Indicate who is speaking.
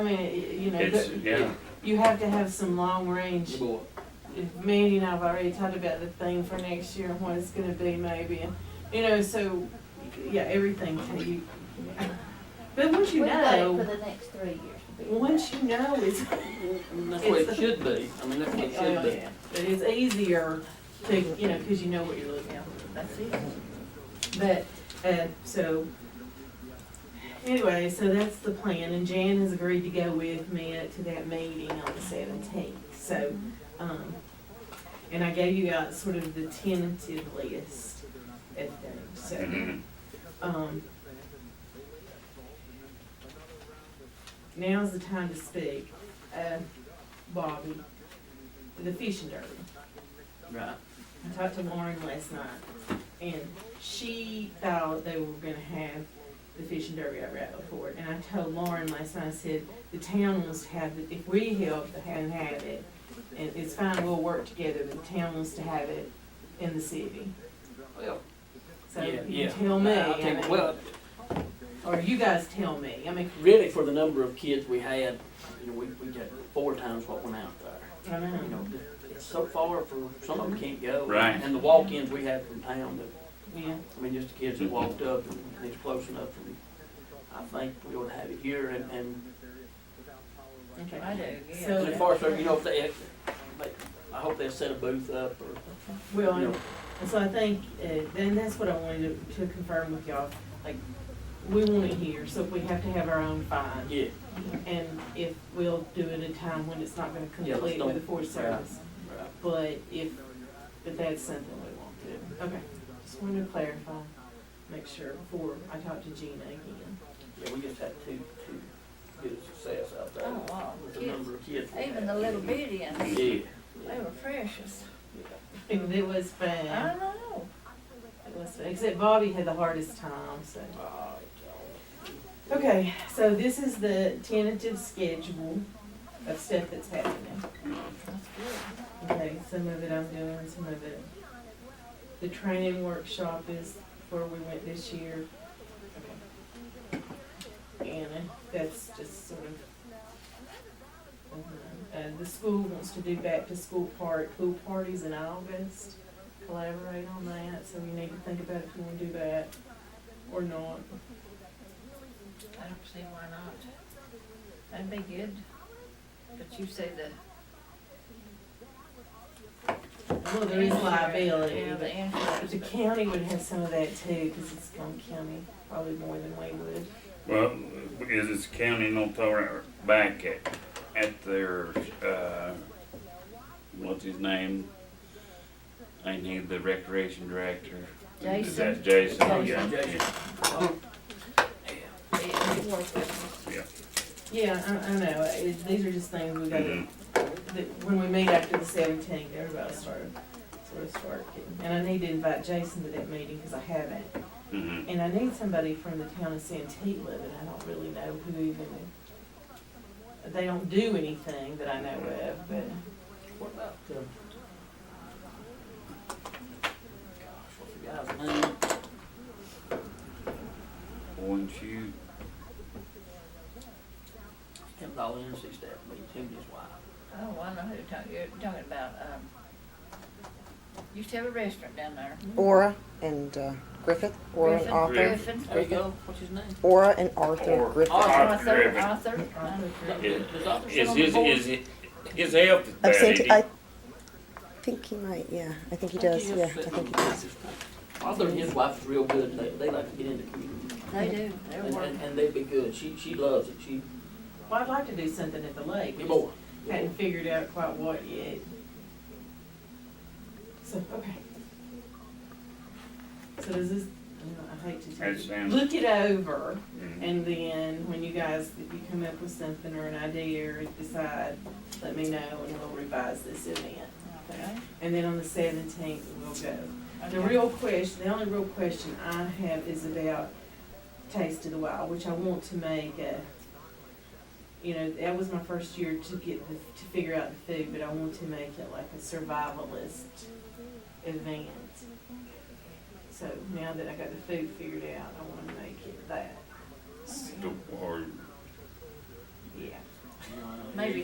Speaker 1: I mean, y- you know,
Speaker 2: It's,
Speaker 1: the-
Speaker 2: yeah,
Speaker 1: you have to have some long range.
Speaker 3: Well,
Speaker 1: Mandy and I have already talked about the thing for next year and what it's gonna be maybe, and, you know, so, yeah, everything, you. But once you
Speaker 4: We've got it for
Speaker 1: know,
Speaker 4: the next three years. to be
Speaker 1: once
Speaker 4: back.
Speaker 1: you know, it's,
Speaker 3: I mean, that's what it should be, I mean, that's what it should
Speaker 1: oh,
Speaker 3: be.
Speaker 1: yeah, but it's easier to, you know, cause you know what you're looking at, that's it. But, uh, so, anyway, so that's the plan, and Jan has agreed to go with me at- to that meeting on the seventeenth, so, um, and I gave you out sort of the tentative list of things, so,
Speaker 2: Mhm.
Speaker 1: um, now's the time to speak, uh, Bobby, the fishing derby.
Speaker 3: Right.
Speaker 1: I talked to Lauren last night, and she thought they were gonna have the fishing derby at Rattleport, and I told Lauren last night, I said, the town wants to have it, if we help, they can have it. And it's fine, we'll work together, but the town wants to have it in the city,
Speaker 3: Well,
Speaker 1: so
Speaker 3: yeah,
Speaker 1: you
Speaker 3: yeah.
Speaker 1: tell me,
Speaker 3: I'll
Speaker 1: I
Speaker 3: tell you,
Speaker 1: mean,
Speaker 3: Well,
Speaker 1: or you guys tell me, I mean,
Speaker 3: really for the number of kids we had, you know, we, we got four times what went out there.
Speaker 1: I don't
Speaker 3: You know,
Speaker 1: know,
Speaker 3: it's so far for, some of them can't go.
Speaker 2: Right.
Speaker 3: And the walk-ins we had from town, that,
Speaker 1: yeah,
Speaker 3: I mean, just the kids that walked up and it's close enough and I think we ought to have it here and, and
Speaker 1: okay.
Speaker 5: I do,
Speaker 1: So-
Speaker 5: yeah.
Speaker 3: And as far as, you know, if they, if they- I hope they set a booth up or,
Speaker 1: Well,
Speaker 3: you
Speaker 1: and
Speaker 3: know,
Speaker 1: And so I think, uh, then that's what I wanted to, to confirm with y'all, like, we want it here, so we have to have our own fine.
Speaker 3: yeah.
Speaker 1: And if we'll do it at a time when it's not gonna
Speaker 3: Yeah, let's
Speaker 1: conflict with the
Speaker 3: don't-
Speaker 1: Forest Service,
Speaker 3: right.
Speaker 1: but if, but that's something we won't do. Okay, just wanted to clarify, make sure before I talk to Gina again.
Speaker 3: Yeah, we just had two, two good success out there.
Speaker 5: Oh, wow.
Speaker 3: With the number of kids. we
Speaker 5: Even
Speaker 3: had.
Speaker 5: the little bitty and they
Speaker 3: Yeah.
Speaker 5: were precious.
Speaker 1: And it was fun,
Speaker 5: I
Speaker 1: it
Speaker 5: know.
Speaker 1: was fun, except Bobby had the hardest time, so.
Speaker 3: Ah,
Speaker 1: Okay, so this is the tentative schedule of stuff that's happening.
Speaker 5: That's good.
Speaker 1: Okay, some of it I'm doing, some of it. The training workshop is where we went this year. And uh, that's just sort of. uh, Uh, the school wants to do back to school part, pool parties in August, collaborate on that, so we need to think about if we wanna do that or not.
Speaker 5: I don't see why not. That'd be good. But you say the.
Speaker 1: Well, there is liability,
Speaker 5: Yeah,
Speaker 1: but-
Speaker 5: the insurance.
Speaker 1: The county would have some of that too, cause it's Gum County, probably more than we would.
Speaker 2: well, is this county not throwing it back at, at their, uh, what's his name? I need the recreation director. Is that Jason?
Speaker 5: Jason.
Speaker 2: Oh, Yeah,
Speaker 3: Jason.
Speaker 2: yeah.
Speaker 5: but it- it works with
Speaker 2: Yeah.
Speaker 1: Yeah, I, I know, it, these are just things we gotta,
Speaker 2: Mhm.
Speaker 1: that, when we meet after the seventeenth, everybody started, sort of start getting. And I need to invite Jason to that meeting, cause I haven't,
Speaker 2: Mhm.
Speaker 1: and I need somebody from the town of Santee living, I don't really know who even. They don't do anything that I know of, but,
Speaker 3: What about the? Gosh, what's the guy's name?
Speaker 2: One shoot,
Speaker 3: He comes all in and sees that, but he's him and his wife.
Speaker 5: Oh, I know who you're talking, you're talking about, um, used to have a restaurant down there.
Speaker 6: Aura and uh, Griffith. Aura and
Speaker 5: Griffin-
Speaker 6: Arthur.
Speaker 5: Griffin.
Speaker 3: There you go, what's his name?
Speaker 6: Aura and Arthur
Speaker 2: Aura.
Speaker 6: Griffith.
Speaker 3: Arthur.
Speaker 5: Arthur,
Speaker 2: Griffin.
Speaker 5: Arthur.
Speaker 1: um,
Speaker 2: is,
Speaker 3: Does Arthur sit
Speaker 2: is
Speaker 3: on the
Speaker 2: his,
Speaker 3: board?
Speaker 2: is his, his health is
Speaker 6: I've
Speaker 2: bad,
Speaker 6: sent,
Speaker 2: ain't
Speaker 6: I
Speaker 2: it?
Speaker 6: think he might, yeah. I think he
Speaker 3: I think
Speaker 6: does,
Speaker 3: is
Speaker 6: yeah. I
Speaker 3: sitting
Speaker 6: think he
Speaker 3: on the
Speaker 6: does.
Speaker 3: board. Arthur and his wife is real good, they, they like to get into community.
Speaker 5: They do, they're
Speaker 3: And,
Speaker 5: working.
Speaker 3: and, and they'd be good, she, she loves it, she,
Speaker 1: well, I'd like to do something at the lake.
Speaker 3: be more.
Speaker 1: Hadn't figured out quite what yet. So, okay. So does this, you know, I hate to
Speaker 2: That
Speaker 1: tell you,
Speaker 2: sounds-
Speaker 1: look it over,
Speaker 2: Mhm.
Speaker 1: and then when you guys, if you come up with something or an idea or decide, let me know and we'll revise this event.
Speaker 5: Okay.
Speaker 1: And then on the seventeenth, we'll go. The
Speaker 5: Okay.
Speaker 1: real question, the only real question I have is about Taste of the Wild, which I want to make a, you know, that was my first year to get, the to figure out the food, but I want to make it like a survivalist event. So now that I got the food figured
Speaker 2: Mm-hmm.
Speaker 1: out, I wanna make it that,
Speaker 2: Sto- Or
Speaker 1: yeah.
Speaker 5: maybe